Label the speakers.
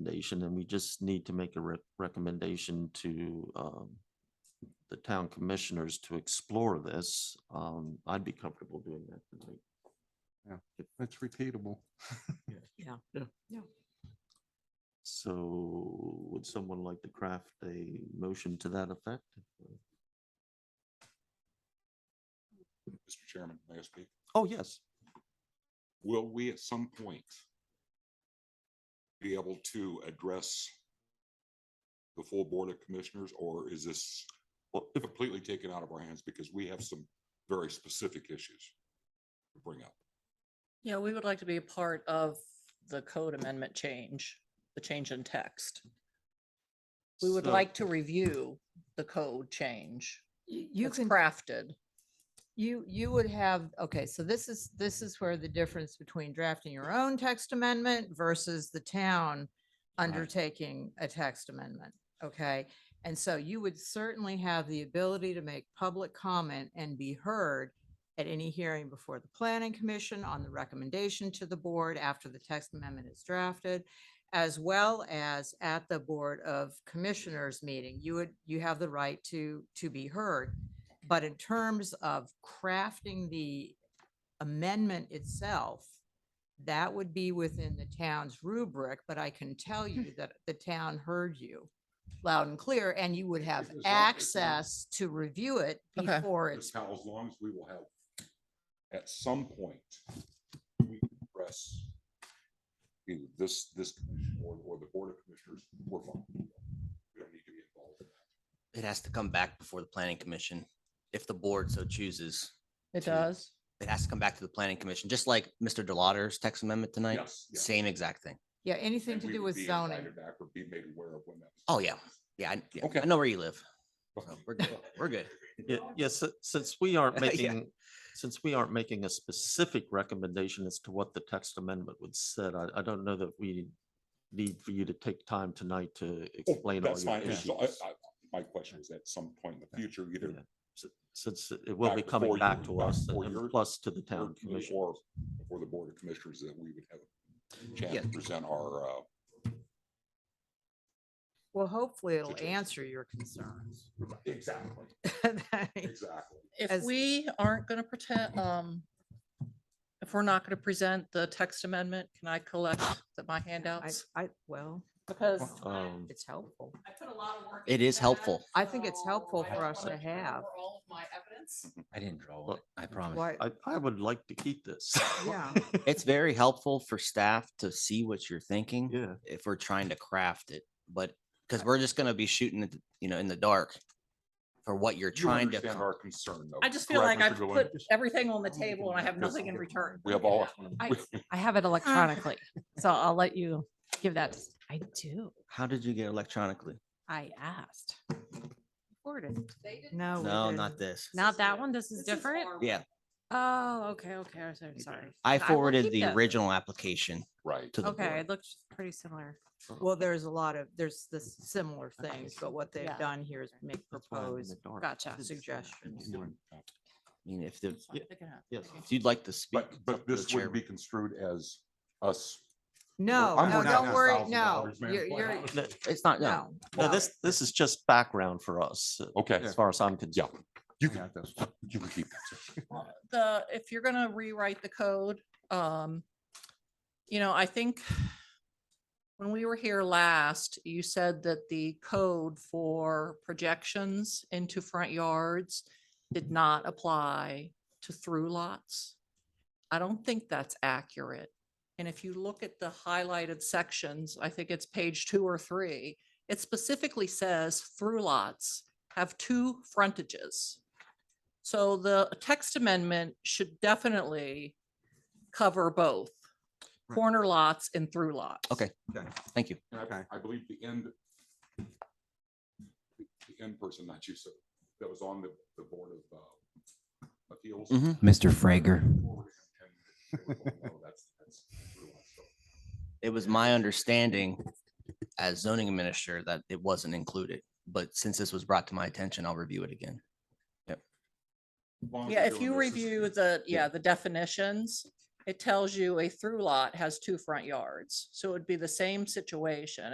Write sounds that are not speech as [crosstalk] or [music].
Speaker 1: recommendation and we just need to make a re- recommendation to, um, the town commissioners to explore this, um, I'd be comfortable doing that tonight.
Speaker 2: That's repeatable.
Speaker 3: Yeah.
Speaker 1: So would someone like to craft a motion to that effect?
Speaker 4: Mr. Chairman, may I speak?
Speaker 1: Oh, yes.
Speaker 4: Will we at some point be able to address the full Board of Commissioners, or is this
Speaker 1: Well, if,
Speaker 4: completely taken out of our hands because we have some very specific issues to bring up?
Speaker 3: Yeah, we would like to be a part of the code amendment change, the change in text. We would
Speaker 1: so-
Speaker 3: like to review the code change.
Speaker 5: You you
Speaker 3: It's
Speaker 5: can,
Speaker 3: crafted.
Speaker 5: you, you would have, okay, so this is, this is where the difference between drafting your own text amendment versus the town undertaking a text amendment, okay? And so you would certainly have the ability to make public comment and be heard at any hearing before the planning commission on the recommendation to the board after the text amendment is drafted, as well as at the Board of Commissioners meeting. You would, you have the right to, to be heard. But in terms of crafting the amendment itself, that would be within the town's rubric, but I can
Speaker 4: Hmm.
Speaker 5: tell you that the town heard you loud and clear, and you would have
Speaker 4: As long as you-
Speaker 5: access to review it
Speaker 3: Okay.
Speaker 5: before
Speaker 4: That's
Speaker 5: it's.
Speaker 4: how, as long as we will have, at some point, we can address either this, this commission or, or the Board of Commissioners, we're fine. We don't need to be involved. in that.
Speaker 6: It has to come back before the planning commission, if the board so chooses.
Speaker 3: It
Speaker 6: to-
Speaker 3: does.
Speaker 6: It has to come back to the planning commission, just like Mr. Delauter's text amendment tonight,
Speaker 4: Yes, yes.
Speaker 6: same exact thing.
Speaker 5: Yeah, anything
Speaker 4: And
Speaker 5: to
Speaker 4: we
Speaker 5: do
Speaker 4: would
Speaker 5: with
Speaker 4: be
Speaker 5: zoning.
Speaker 4: invited Back or be made aware of when that. was-
Speaker 6: Oh, yeah. Yeah, I, yeah,
Speaker 4: Okay.
Speaker 6: I know where you live. so
Speaker 4: Okay.
Speaker 6: We're good. We're good.
Speaker 1: yeah, yes, si- since we
Speaker 3: [laughs]
Speaker 1: aren't
Speaker 6: Yeah.
Speaker 1: making, since we aren't making a specific recommendation as to what the text amendment would said, I, I don't know that we need for you to take time tonight to
Speaker 4: Oh,
Speaker 1: explain all
Speaker 4: That's
Speaker 1: your
Speaker 4: fine. It's
Speaker 1: issues.
Speaker 4: just- I- I- My question was at some point in the future, either
Speaker 1: Yeah. S- Since it will
Speaker 4: Back
Speaker 1: be coming
Speaker 4: before
Speaker 1: back
Speaker 4: you-
Speaker 1: to
Speaker 4: back
Speaker 1: us
Speaker 4: before
Speaker 1: and
Speaker 4: your-
Speaker 1: plus to the
Speaker 4: or
Speaker 1: town
Speaker 4: to me
Speaker 1: commission.
Speaker 4: or before the Board of Commissioners, that we would have a chance to
Speaker 6: Yeah.
Speaker 4: present our, uh,
Speaker 5: Well, hopefully it'll
Speaker 4: Situation.
Speaker 5: answer your [laughs] concerns.
Speaker 4: exactly,
Speaker 5: That-
Speaker 4: exactly.
Speaker 3: If
Speaker 5: As-
Speaker 3: we aren't going to pretend, um, if we're not going to present the text amendment, can I collect the- my
Speaker 5: I,
Speaker 3: handouts?
Speaker 5: I, well,
Speaker 3: Because
Speaker 4: Hmm.
Speaker 1: Um,
Speaker 5: it's helpful.
Speaker 3: I put a lot of work.
Speaker 6: It into is that, helpful.
Speaker 5: I think it's helpful for us to have.
Speaker 3: All of my evidence.
Speaker 6: I didn't draw
Speaker 1: Well,
Speaker 6: it, I promise.
Speaker 5: Why,
Speaker 1: I, I would like to keep this. [laughs]
Speaker 5: Yeah.
Speaker 6: It's very helpful for staff to see what you're thinking
Speaker 1: Yeah,
Speaker 6: if we're trying to craft it, but, because we're just gonna be shooting it, you know, in the dark for what you're
Speaker 4: You
Speaker 6: trying to.
Speaker 4: understand
Speaker 6: accom-
Speaker 4: Our concern. though,
Speaker 3: I just feel
Speaker 4: correct,
Speaker 3: like I've
Speaker 4: Mr. Gallen?
Speaker 3: put everything on the table and I have
Speaker 4: Yes.
Speaker 3: nothing in return.
Speaker 4: We have
Speaker 3: [laughs]
Speaker 4: all,
Speaker 7: I, I have it electronically, so I'll let you give that. to s- I do.
Speaker 6: How did you get electronically?
Speaker 7: I asked. Forwarded.
Speaker 5: no. Oh, we
Speaker 6: No,
Speaker 5: didn't.
Speaker 6: not this.
Speaker 7: Not that one. This is different.
Speaker 6: Yeah,
Speaker 7: Oh, okay, okay. I'm so sorry.
Speaker 6: I
Speaker 7: will
Speaker 6: forwarded
Speaker 7: keep
Speaker 6: the
Speaker 7: those.
Speaker 6: original application
Speaker 4: right.
Speaker 6: to the
Speaker 7: Okay,
Speaker 6: board.
Speaker 7: it looks pretty similar.
Speaker 5: Well, there's a lot of, there's the similar things, but what they've
Speaker 7: Yeah.
Speaker 5: done here is make
Speaker 1: that's why I'm in the
Speaker 5: proposed
Speaker 1: dark.
Speaker 7: Gotcha.
Speaker 1: This is-
Speaker 5: suggestions.
Speaker 6: I mean, if the,
Speaker 3: That's fine. They can have- they
Speaker 1: Yes.
Speaker 3: can-
Speaker 6: if you'd like to speak.
Speaker 4: But,
Speaker 6: it's up
Speaker 4: but
Speaker 6: to the
Speaker 4: this would be
Speaker 6: chairman.
Speaker 4: construed as us.
Speaker 5: No,
Speaker 4: I'm
Speaker 5: no,
Speaker 4: working
Speaker 5: don't
Speaker 4: on
Speaker 5: worry, no.
Speaker 4: $1,000, man.
Speaker 5: You're,
Speaker 4: [laughs] Why
Speaker 5: you're,
Speaker 4: not?
Speaker 1: No,
Speaker 6: It's not, no.
Speaker 5: no.
Speaker 1: no,
Speaker 5: no.
Speaker 1: this, this is just background for us, uh,
Speaker 4: Okay,
Speaker 1: as far as I'm concerned.
Speaker 4: you can, you can keep that.
Speaker 3: the, if you're gonna rewrite the code, um, you know, I think when we were here last, you said that the code for projections into front yards did not apply to through lots. I don't think that's accurate. And if you look at the highlighted sections, I think it's page two or three, it specifically says through lots have two frontages. So the text amendment should definitely cover both
Speaker 2: Right.
Speaker 3: corner lots and through lots.
Speaker 6: Okay. Thank you.
Speaker 4: And
Speaker 2: Okay.
Speaker 4: I, I believe the end, the end person, not you, so that was on the, the Board of uh, Appeals.
Speaker 6: Mhm.
Speaker 8: Mr. Frager.
Speaker 6: It was my understanding as zoning administrator that it wasn't included, but since this was brought to my attention, I'll review it again.
Speaker 3: Yeah, if you review the, yeah, the definitions, it tells you a through lot has two front yards. So it'd be the same situation.